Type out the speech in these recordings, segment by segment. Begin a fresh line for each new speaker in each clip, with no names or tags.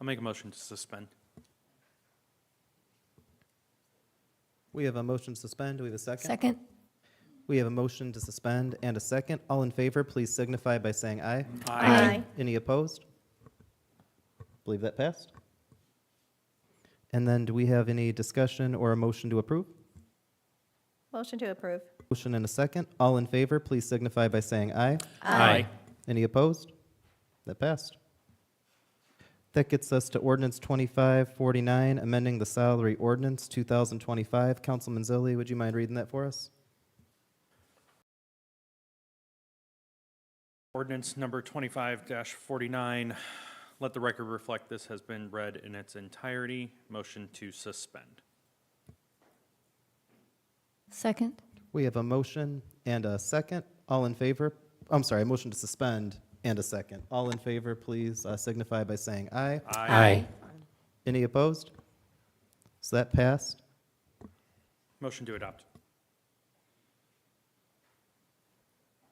I'll make a motion to suspend.
We have a motion to suspend. Do we have a second?
Second?
We have a motion to suspend and a second. All in favor, please signify by saying aye. Any opposed? Believe that passed. And then do we have any discussion or a motion to approve?
Motion to approve.
Motion and a second. All in favor, please signify by saying aye.
Aye.
Any opposed? That passed. That gets us to ordinance 2549, amending the salary ordinance 2025. Councilman Zilli, would you mind reading that for us?
Ordinance number twenty-five forty-nine. Let the record reflect this has been read in its entirety. Motion to suspend.
Second?
We have a motion and a second. All in favor, I'm sorry, a motion to suspend and a second. All in favor, please uh, signify by saying aye.
Aye.
Any opposed? So that passed.
Motion to adopt.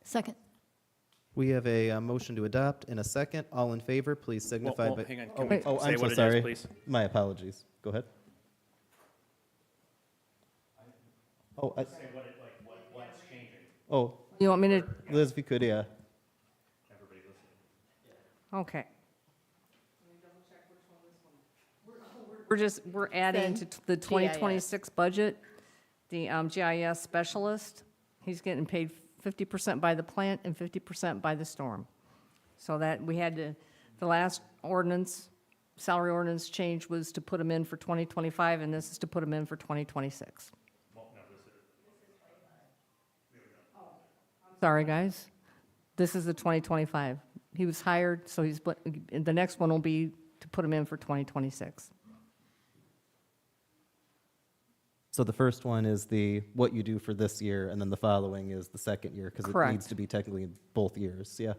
Second?
We have a uh, motion to adopt and a second. All in favor, please
Well,
signify
well,
by.
hang on,
Oh,
can we
oh, I'm
say
so
what it
sorry.
is, please?
My apologies. Go ahead. Oh, I- Oh,
You want me to,
Liz, if you could, yeah.
okay. We're just, we're adding to t- the 2026 budget, the um, GIS specialist. He's getting paid 50% by the plant and 50% by the storm. So that, we had to, the last ordinance, salary ordinance change was to put him in for 2025, and this is to put him in for 2026. Sorry, guys. This is the 2025. He was hired, so he's, but, the next one will be to put him in for 2026.
So the first one is the, what you do for this year, and then the following is the second year, because it needs
Correct.
to be technically in both years, yeah.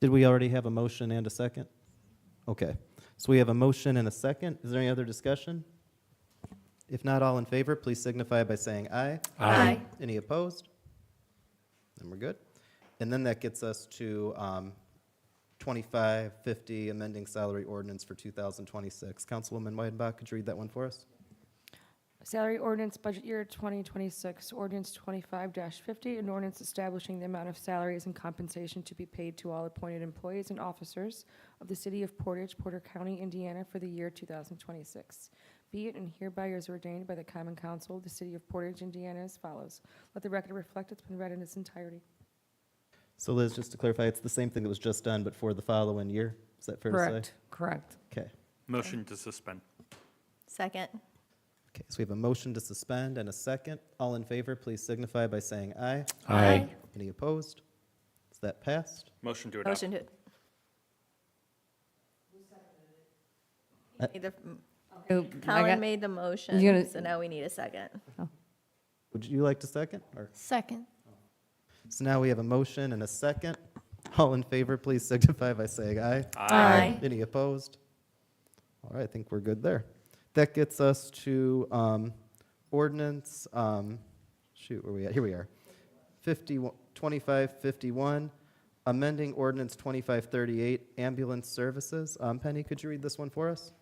Did we already have a motion and a second? Okay, so we have a motion and a second. Is there any other discussion? If not, all in favor, please signify by saying aye.
Aye.
Any opposed? Then we're good. And then that gets us to um, 2550, amending salary ordinance for 2026. Councilwoman Weidenbach, could you read that one for us?
Salary ordinance, budget year 2026, ordinance 25-50, an ordinance establishing the amount of salaries and compensation to be paid to all appointed employees and officers of the city of Portage, Porter County, Indiana, for the year 2026. Be it and hereby is ordained by the Common Council of the city of Portage, Indiana, as follows. Let the record reflect it's been read in its entirety.
So Liz, just to clarify, it's the same thing that was just done, but for the following year? Is that fair to say?
Correct, correct.
Okay.
Motion to suspend.
Second.
Okay, so we have a motion to suspend and a second. All in favor, please signify by saying aye.
Aye.
Any opposed? Is that passed?
Motion to adopt.
Motion to.
Uh,
Need the-
Uh, I
Colin
got-
made the
You're gonna-
motion, so now we need a second.
Would you like to second? Or,
Second?
so now we have a motion and a second. All in favor, please signify by saying aye.
Aye.
Any opposed? All right, I think we're good there. That gets us to um, ordinance, um, shoot, where we at? Here we are. 51 2551, amending ordinance 2538, ambulance services. Um, Penny, could you read this one for us?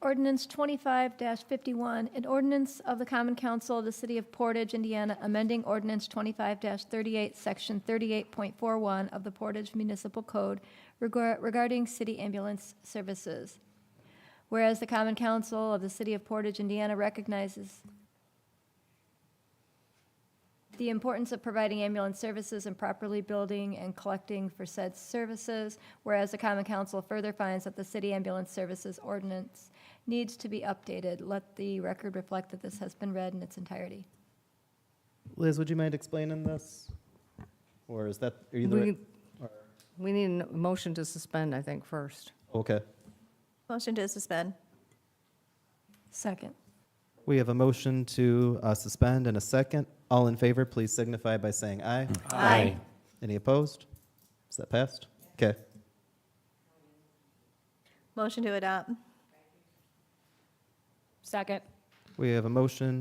Ordinance 25-51, an ordinance of the Common Council of the City of Portage, Indiana, amending ordinance 25-38, Section 38.41 of the Portage Municipal Code regar- regarding city ambulance services. Whereas the Common Council of the City of Portage, Indiana recognizes the importance of providing ambulance services and properly building and collecting for said services, whereas the Common Council further finds that the City Ambulance Services Ordinance needs to be updated. Let the record reflect that this has been read in its entirety.
Liz, would you mind explaining this? Or is that, are you the
We
right?
we need a motion to suspend, I think, first.
Okay.
Motion to suspend.
Second.
We have a motion to uh, suspend and a second. All in favor, please signify by saying aye.
Aye.
Any opposed? Is that passed? Okay.
Motion to adopt.
Second.
We have a motion